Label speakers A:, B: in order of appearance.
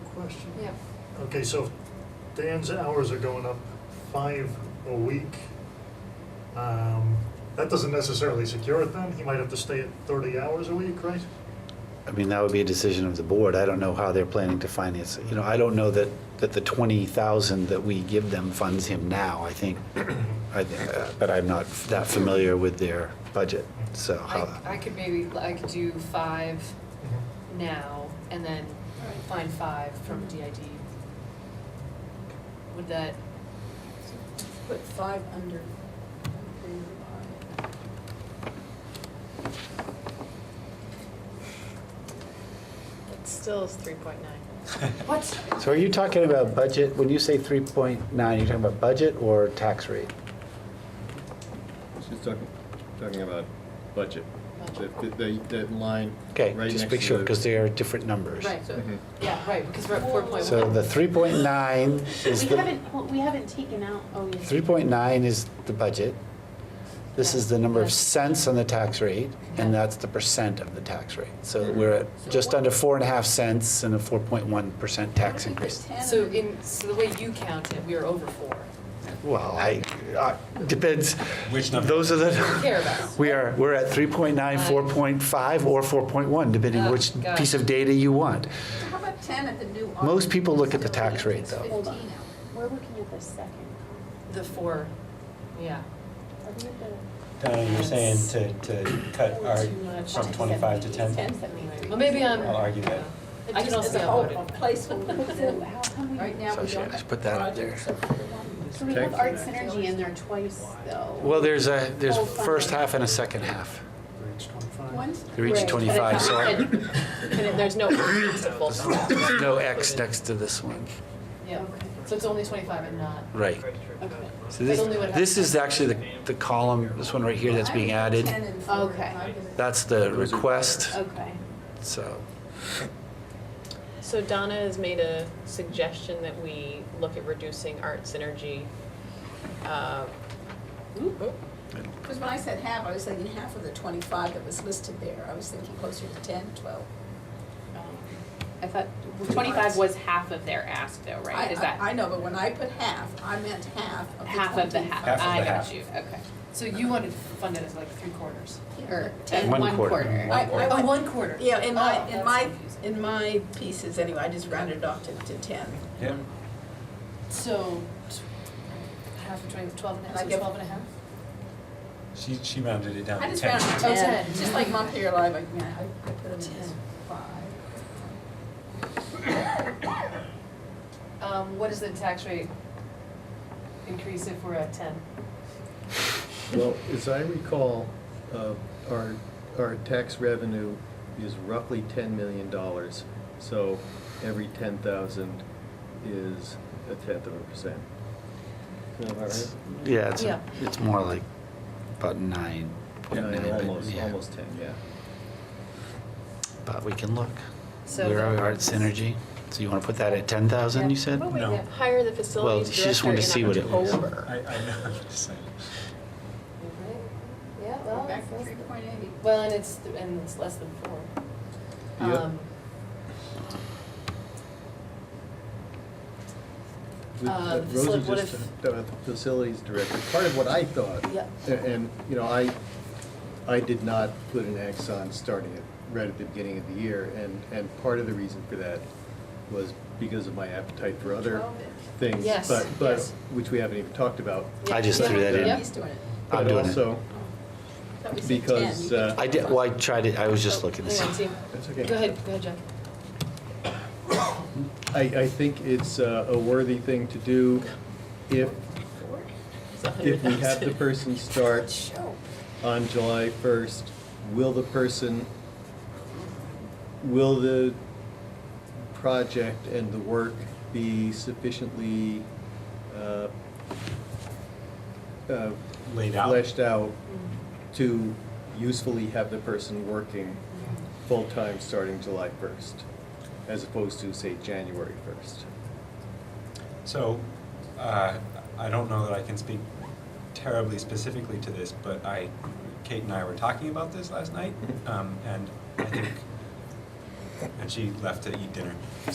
A: question?
B: Yeah,
A: Okay, so if Dan's hours are going up five a week. Um, that doesn't necessarily secure it then. He might have to stay at thirty hours a week, right?
C: I mean, that would be a decision of the board. I don't know how they're planning to finance it. You know, I don't know that, that the 20,000 that we give them funds him now, I think. I- uh, But I'm not that familiar with their budget, so.
B: I,
C: how-
B: I could maybe, I could do five
D: Mm-hmm.
B: now and then find five from DID. Would that,
E: Put five under. under
F: It still is three point nine.
B: what?
C: So are you talking about budget, when you say 3.9, you're talking about budget or tax rate?
G: She's talking, talking about budget, that, that, that line.
C: Okay,
G: right
C: just
G: next
C: make
G: to
C: sure,
G: the-
C: because they are different numbers.
B: Right, so,
G: Mhm.
B: yeah, right, because we're at four point one.
C: mm-hmm. So the 3.9 is
H: We
C: the.
H: haven't, well, we haven't taken out, oh, yes.
C: 3.9 is the budget. This is the number of cents on the tax rate, and that's the percent of the tax rate. So we're at just under four and a half cents and a 4.1% tax increase.
B: So in, so the way you count it, we are over four.
C: Well, I, I- depends.
D: Which number?
C: Those are the,
B: Care about us.
C: we are, we're at 3.9, 4.5, or 4.1, depending
B: Oh,
C: which
B: got it.
C: piece of data you want.
E: How about ten at the new?
C: Most people look at the
E: office?
C: tax rate, though.
E: Hold on.
H: We're looking at the second.
B: The four, yeah.
H: Are we at the? uh,
D: Donna, Uh, you're saying to, to cut our, from 25 to 10?
B: Well, maybe I'm.
D: I'll argue that.
B: I can also
E: Just as a
B: upload it.
E: placeholder.
H: How come
E: Right
H: we,
E: now,
C: So
E: we
C: she-
E: don't
C: I
E: have
C: should put that up there.
E: projects up for the one.
H: so we have art synergy in there twice, though.
C: Well, there's a, there's
H: Oh, fine.
C: first half and a second half.
A: Reach twenty-five.
E: One's
C: They reach
H: Right, but
C: 25, so I-
F: And it- there's no increase to both of them.
C: there's no X next to this one.
B: Yeah, so it's only twenty-five and not.
C: Right.
H: Okay.
C: So this,
B: But only what
C: this
B: happens-
C: is actually the, the column, this one right here that's being
E: I was at
C: added.
E: 10 and four, and
H: Okay.
E: I was-
C: That's the request,
H: Okay.
C: so.
F: So Donna has made a suggestion that we look at reducing art synergy. uh,
B: oh.
E: Because when I said half, I was thinking half of the twenty-five that was listed there. I was thinking closer to 10, 12.
I: Um, I thought twenty-five was half of their ask though,
E: I-
I: right? Is
E: I-
I: that
E: I know, but when I put half, I meant half of the
I: half of the
E: 25.
I: half?
D: Half of
I: I
D: the
I: got
D: half.
I: you, okay.
B: So you wanted to fund it as like three quarters.
I: Or
E: Ten.
C: One
I: one
C: quarter.
I: quarter.
E: I- I
B: Oh,
E: went-
B: one quarter.
E: Yeah, in my,
B: Oh,
E: in
B: that's
E: my,
B: confusing.
E: in my pieces anyway, I just rounded off to, to ten.
D: Yeah.
B: So, t- half of twenty, twelve and a half,
E: Like
B: so
E: if-
B: twelve and a half?
D: She, she rounded it down
E: I
D: to
E: just rounded to
D: 10.
B: Oh,
E: ten,
B: 10.
E: just like Montpelier Live, like, man, I I put them in five.
B: Um, what is the tax rate increase if we're at ten?
G: Well, as I recall, uh, our, our tax revenue is roughly ten million dollars. So every ten thousand is a tenth of a percent. Is that about right?
C: Yeah, it's,
B: Yeah.
C: it's more like about nine. point nine,
G: Yeah,
C: but
G: Almost,
C: yeah.
G: almost ten, yeah.
C: But we can look.
B: So
C: Where are
B: the-
C: art synergy? So you want to put that at 10,000, you said?
B: Oh.
F: Well, we
D: No.
F: could hire the facilities
C: she just
F: director
C: wanted to see what it
F: in
C: was.
F: October.
D: I, I know, I'm just saying.
B: Yeah,
E: Go
B: well,
E: Back to
B: it's-
E: three point eight.
B: well, and it's, and it's less than four.
G: Yep.
B: Um,
G: With-
B: Uh,
G: that
B: so
G: Rosa
B: what
G: just
B: if-
G: talked about the facilities director, part of what I thought.
B: Yeah.
G: a- And, you know, I, I did not put an X on starting it right at the beginning of the year, and, and part of the reason for that was because of my appetite for other
E: Twelve
G: things.
B: Yes,
G: but But,
B: yes.
G: which we haven't even talked about.
C: I just threw that
E: Yeah,
C: in.
E: He's doing it.
C: I'm doing it.
G: But also,
E: Thought we said 10.
G: because,
E: You
G: uh,
C: I did, well, I tried it, I was just looking to
B: Hang on,
C: see.
B: see,
G: that's okay.
B: go ahead, go ahead, Jeff.
G: I, I think it's uh, a worthy thing to do if,
F: It's a hundred
G: if we have the
F: thousand.
G: person start
E: Show.
G: on July 1st, will the person, will the project and the work be sufficiently uh, uh,
D: Laid out.
G: Fleshed out to usefully have the person working full-time starting July 1st, as opposed to, say, January 1st?
D: So, uh, I don't know that I can speak terribly specifically to this, but I, Kate and I were talking about this last night, um, and I think, and she left to eat dinner.